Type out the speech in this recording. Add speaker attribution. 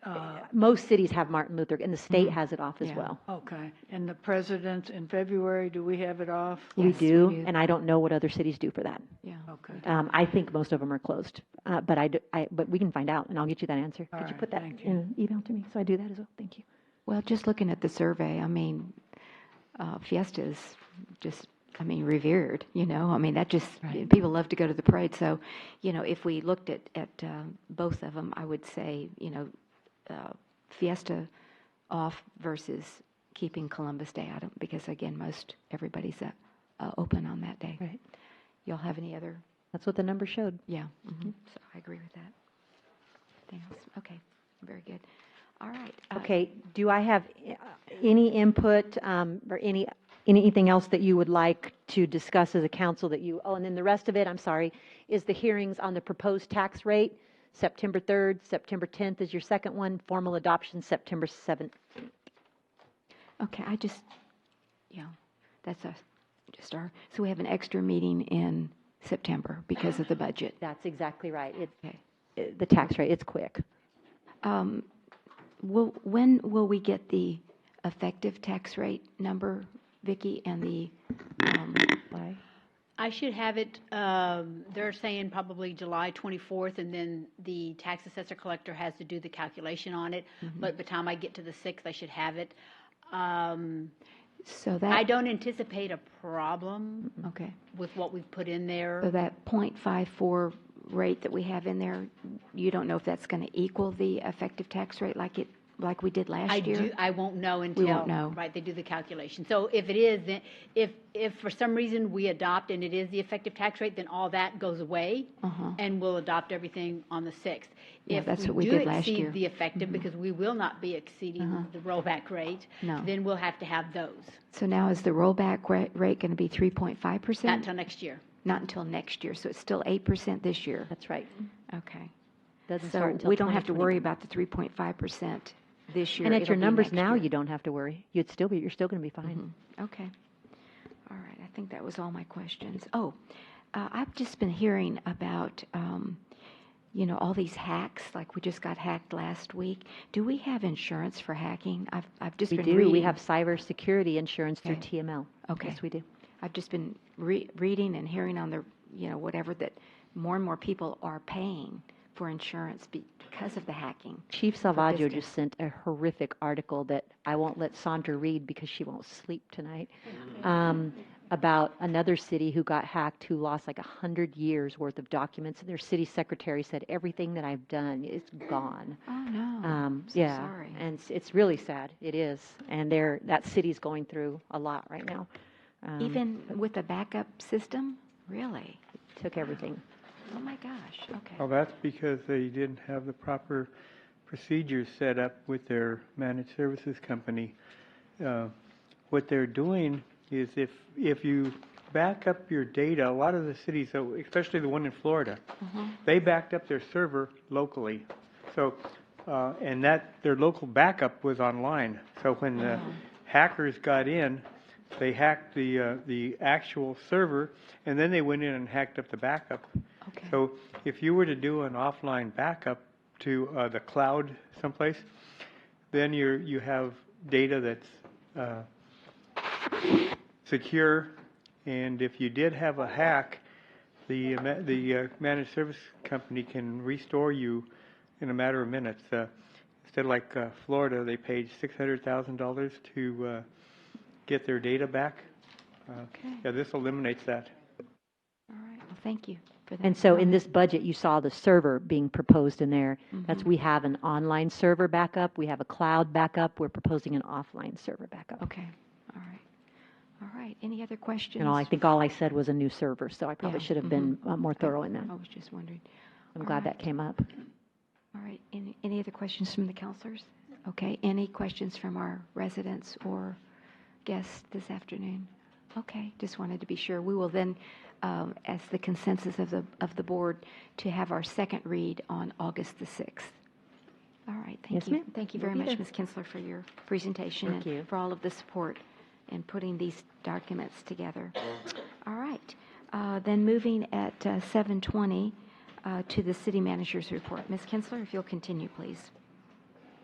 Speaker 1: Uh,
Speaker 2: most cities have Martin Luther, and the state has it off as
Speaker 3: Yeah.
Speaker 2: well.
Speaker 1: Okay, and the president in February, do we have it off?
Speaker 2: We
Speaker 3: Yes, we
Speaker 2: do,
Speaker 3: do.
Speaker 2: and I don't know what other cities do for that.
Speaker 3: Yeah.
Speaker 1: Okay.
Speaker 2: Um, I think most of them are closed, uh, but I, d- I- but we can find out, and I'll get you that answer.
Speaker 1: All
Speaker 2: Could you
Speaker 1: right,
Speaker 2: put that
Speaker 1: thank you.
Speaker 2: in an email to me? So I do that as well. Thank you.
Speaker 3: Well, just looking at the survey, I mean, uh, Fiesta is just, I mean, revered, you know? I mean, that just, people love to go to the parade. So, you know, if we looked at, at um, both of them, I would say, you know, uh, Fiesta off versus keeping Columbus Day out of, because again, most, everybody's uh, uh, open on that day.
Speaker 2: Right.
Speaker 3: Y'all have any other?
Speaker 2: That's what the number showed.
Speaker 3: Yeah, mhm. so I agree with that. Anything else? Okay, very good. All right. uh,
Speaker 2: Okay, do I have uh, any input um, or any, anything else that you would like to discuss as a council that you, oh, and then the rest of it, I'm sorry, is the hearings on the proposed tax rate, September 3rd, September 10th is your second one, formal adoption, September 7th.
Speaker 3: Okay, I just, yeah, that's us, just our, so we have an extra meeting in September because of the budget.
Speaker 2: That's exactly right. It-
Speaker 3: Okay.
Speaker 2: It, the tax rate, it's quick.
Speaker 3: Um, Will, when will we get the effective tax rate number, Vicki, and the, um,
Speaker 2: Why?
Speaker 4: I should have it, um, they're saying probably July 24th, and then the tax assessor collector has to do the calculation on it.
Speaker 1: Mm-hmm.
Speaker 4: But by the time I get to the 6th, I should have it. Um,
Speaker 3: so
Speaker 4: I
Speaker 3: that,
Speaker 4: don't anticipate a problem
Speaker 3: okay.
Speaker 4: with what we've put in
Speaker 3: So
Speaker 4: there.
Speaker 3: that .54 rate that we have in there, you don't know if that's going to equal the effective tax rate like it, like we did
Speaker 4: I
Speaker 3: last year?
Speaker 4: do, I won't know until.
Speaker 3: won't know.
Speaker 4: Right, they do the calculation. So if it is, then, if, if for some reason we adopt and it is the effective tax rate, then all that goes away.
Speaker 3: Uh-huh.
Speaker 4: and we'll adopt everything on the 6th.
Speaker 3: Yeah,
Speaker 4: If
Speaker 3: that's what we did last
Speaker 4: do
Speaker 3: year. Mm-hmm. Uh-huh.
Speaker 4: exceed the effective, because we will not be exceeding the rollback rate,
Speaker 3: No.
Speaker 4: then we'll have to have those,
Speaker 3: So now is the rollback ra- rate going to be 3.5%?
Speaker 4: not till next year.
Speaker 3: Not until next year, so it's still eight percent this year.
Speaker 2: That's right.
Speaker 3: Okay.
Speaker 2: Doesn't start
Speaker 3: So
Speaker 2: until
Speaker 3: we don't have to
Speaker 2: 2020.
Speaker 3: worry about the three point five percent this year.
Speaker 2: And at
Speaker 3: It'll
Speaker 2: your
Speaker 3: be
Speaker 2: numbers
Speaker 3: next
Speaker 2: now,
Speaker 3: year. Mm-hmm.
Speaker 2: you don't have to worry. You'd still be, you're still going to be fine.
Speaker 3: Okay. All right, I think that was all my questions. Oh, uh, I've just been hearing about, um, you know, all these hacks, like we just got hacked last week. Do we have insurance for hacking? I've, I've just
Speaker 2: We
Speaker 3: been
Speaker 2: do,
Speaker 3: reading.
Speaker 2: we have cybersecurity insurance through
Speaker 3: Okay.
Speaker 2: TML.
Speaker 3: Okay.
Speaker 2: Yes, we do.
Speaker 3: I've just been re- reading and hearing on the, you know, whatever that more and more people are paying for insurance be- because of the hacking.
Speaker 2: Chief Salvaggio
Speaker 3: business.
Speaker 2: just sent a horrific article that I won't let Sandra read because she won't sleep tonight, um, about another city who got hacked who lost like 100 years worth of documents. And their city secretary said, Everything that I've done is gone.
Speaker 3: Oh, no.
Speaker 2: Um,
Speaker 3: I'm so
Speaker 2: yeah.
Speaker 3: sorry.
Speaker 2: And it's, it's really sad. It is. And they're, that city's going through a lot right now. Um,
Speaker 3: Even with a backup system? Really?
Speaker 2: took everything.
Speaker 3: Oh, my gosh, okay.
Speaker 2: Oh,
Speaker 5: Well, that's because they didn't have the proper procedures set up with their managed services company. Uh, What they're doing is if, if you back up your data, a lot of the cities, so especially the one in Florida, they backed up their server locally. So, uh, and that, their local backup was online. So when the hackers got in, they hacked the, uh, the actual server, and then they went in and hacked up the backup.
Speaker 3: Okay.
Speaker 5: So if you were to do an offline backup to uh, the cloud someplace, then you're, you have data that's uh, secure. And if you did have a hack, the, uh, ma- the uh, managed service company can restore you in a matter of minutes. Uh, Instead of like uh, Florida, they paid $600,000 to uh, get their data back. Uh,
Speaker 3: Okay.
Speaker 5: Yeah, this eliminates that.
Speaker 3: All right, well, thank you for that.
Speaker 2: And so in this budget, you saw the server being proposed in there. That's, we have an online server backup, we have a cloud backup, we're proposing an offline server backup.
Speaker 3: Okay, all right. All right, any other questions?
Speaker 2: And all, I think all I said was a new server, so I probably
Speaker 3: Yeah,
Speaker 2: should have been uh, more thorough in that.
Speaker 3: I was just wondering.
Speaker 2: I'm glad that came up.
Speaker 3: All right, any, any other questions from the counselors? Okay, any questions from our residents or guests this afternoon? Okay, just wanted to be sure. We will then, um, as the consensus of the, of the board, to have our second read on August the 6th. All right,
Speaker 2: Yes,
Speaker 3: thank you.
Speaker 2: ma'am.
Speaker 3: Thank you
Speaker 2: We'll
Speaker 3: very
Speaker 2: be there.
Speaker 3: much, Ms. Kinsler, for your presentation.
Speaker 2: Thank
Speaker 3: and
Speaker 2: you.
Speaker 3: For all of the support in putting these documents together. All right, uh, then moving at uh, 7:20 uh, to the city manager's report. Ms. Kinsler, if you'll continue, please.